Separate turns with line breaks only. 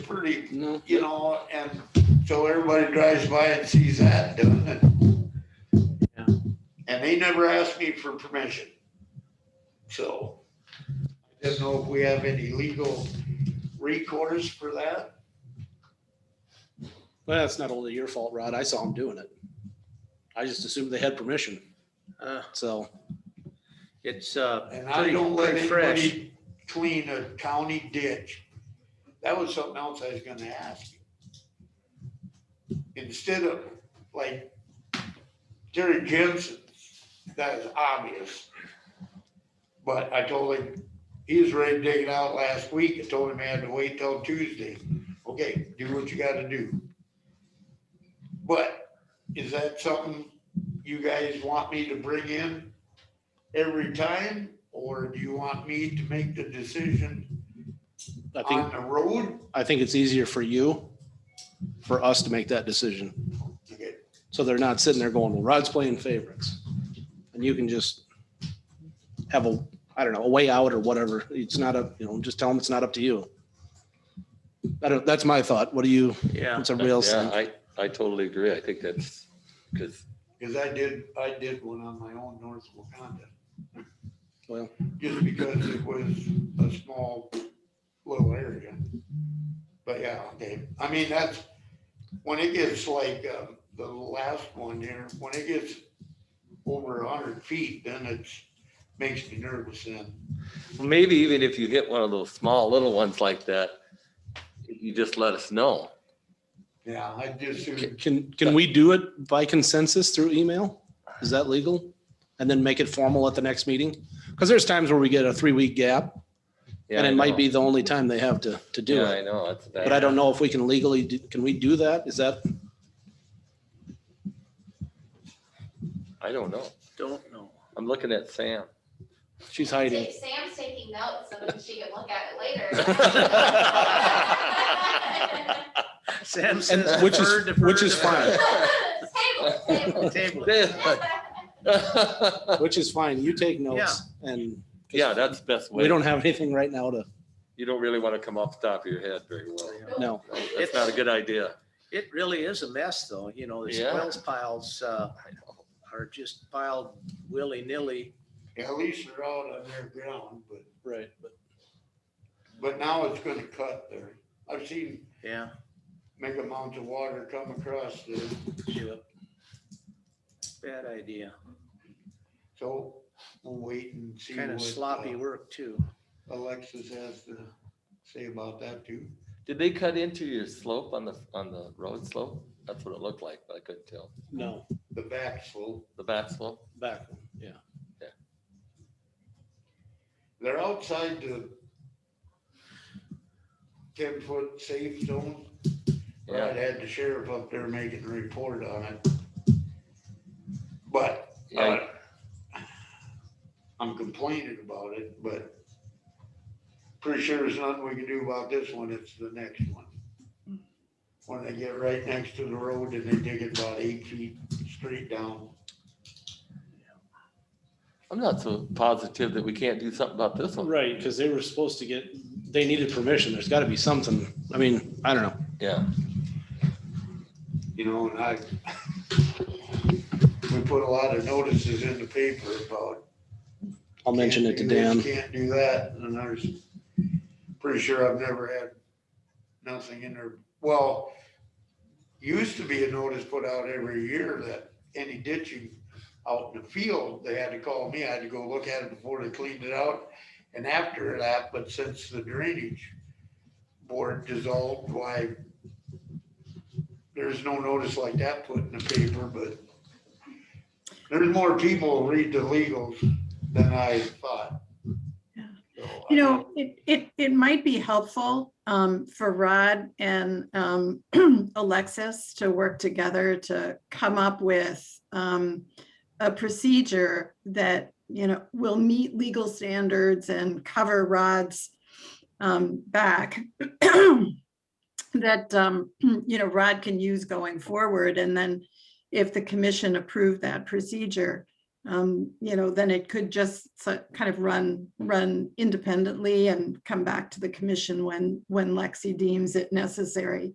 pretty,
No.
you know, and so everybody drives by and sees that doing it.
Yeah.
And they never asked me for permission. So I don't know if we have any legal recourse for that.
Well, that's not only your fault, Rod. I saw them doing it. I just assumed they had permission.
Uh,
So
It's, uh,
And I
Pretty-
don't let
pretty fresh.
anybody clean a county ditch. That was something else I was gonna ask. you. Instead of like Jerry Jensen, that is obvious. But I told him, he was ready to dig it out last week. I told him I had to wait till Tuesday. Okay, do what you gotta do. But is that something you guys want me to bring in? every time? Or do you want me to make the decision
I think,
on the road?
I think it's easier for you, for us to make that decision.
Okay,
So they're not sitting there going, well, Rod's playing favorites. And you can just have a, I don't know, a way out or whatever. It's not a, you know, just tell them it's not up to you. I don't, that's my thought. What do you,
yeah,
what's everybody else
Yeah,
think?
I, I totally agree. I think that's, because
Cause I did, I did one on my own north Wakanda.
Well.
Just because it was a small little area. But yeah, okay, I mean, that's, when it gets like, um, the last one here, when it gets over a hundred feet, then it's, makes me nervous then.
maybe even if you hit one of those small little ones like that, you just let us know.
Yeah, I just,
Can, can we do it by consensus through email? Is that legal? And then make it formal at the next meeting? Because there's times where we get a three-week gap
Yeah,
and
I
it might
know.
be the only time they have to, to do
Yeah,
it.
I know. that's-
But I don't know if we can legally, do- can we do that? Is that,
I don't know.
don't know.
I'm looking at Sam.
she's hiding.
Ta- Sam's taking notes so that she can look at it later.
Sam
And uh,
says.
which is-
defer, defer,
which is
defer.
Table, table.
Table. it.
Which is fine. You take notes and.
Yeah, that's the best way.
We don't have anything right now to,
You don't really want to come off the top of your head very well.
no.
That's not a good idea.
It really is a mess though, you know, the
Yeah.
spoils piles, uh, are just piled willy-nilly.
at least they're out on their ground, but.
Right.
But now it's gonna cut there. I've seen
Yeah.
mega amounts of water come across there.
Bad idea.
So we'll wait and see.
Kind of
what,
sloppy
uh,
work too.
Alexis has to say about that too.
Did they cut into your slope on the, on the road slope? That's what it looked like, but I couldn't tell.
No,
The back slope,
The back slope?
back, one, yeah.
they're outside the ten foot safe zone. I
Yeah.
had the sheriff up there making a report on it. But
Yeah,
Uh, I'm complaining about it, but pretty sure there's nothing we can do about this one, it's the next one. When they get right next to the road and they dig it about eight feet straight down.
I'm not so positive that we can't do something about this one.
Right, because they were supposed to get, they needed permission. There's got to be something. I mean, I don't know.
Yeah,
you know, and I, we put a lot of notices in the paper about.
I'll mention it to
can't do this,
Dan.
Can't do that, and I was pretty sure I've never had nothing in there. Well, used to be a notice put out every year that any ditching out in the field, they had to call me, I had to go look at it before they cleaned it out. And after that, but since the drainage board dissolved, why there's no notice like that put in the paper, but there's more people read the legals than I thought.
Yeah.
So, I
You know, it, it, it might be helpful um, for Rod and um, Alexis to work together to come up with um, a procedure that, you know, will meet legal standards and cover Rod's um, back that, um, you know, Rod can use going forward. And then if the commission approved that procedure, um, you know, then it could just so- kind of run, run independently and come back to the commission when, when Lexi deems it necessary.